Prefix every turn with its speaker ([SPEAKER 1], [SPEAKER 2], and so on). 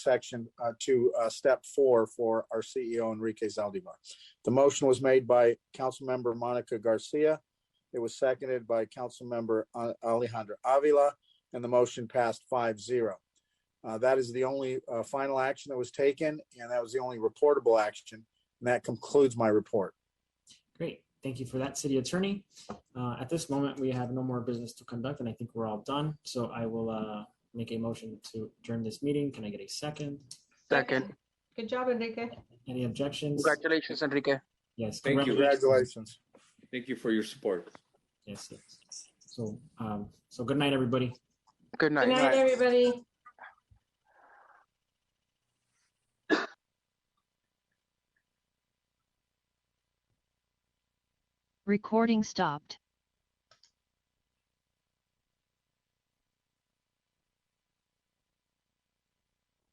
[SPEAKER 1] section uh, to uh, step four for our CEO Enrique Zaldivar. The motion was made by Councilmember Monica Garcia. It was seconded by Councilmember uh, Alejandra Avila, and the motion passed 5-0. Uh, That is the only uh, final action that was taken, and that was the only reportable action. And that concludes my report.
[SPEAKER 2] Great. Thank you for that, City Attorney. Uh, At this moment, we have no more business to conduct, and I think we're all done. So I will uh, make a motion to adjourn this meeting. Can I get a second?
[SPEAKER 3] Second.
[SPEAKER 4] Good job, Enrique.
[SPEAKER 2] Any objections?
[SPEAKER 3] Congratulations, Enrique.
[SPEAKER 2] Yes.
[SPEAKER 5] Thank you.
[SPEAKER 1] Congratulations.
[SPEAKER 5] Thank you for your support.
[SPEAKER 2] Yes. yes. So, um, so good night, everybody.
[SPEAKER 4] Good
[SPEAKER 3] Good night.
[SPEAKER 4] night, everybody.
[SPEAKER 6] Recording stopped.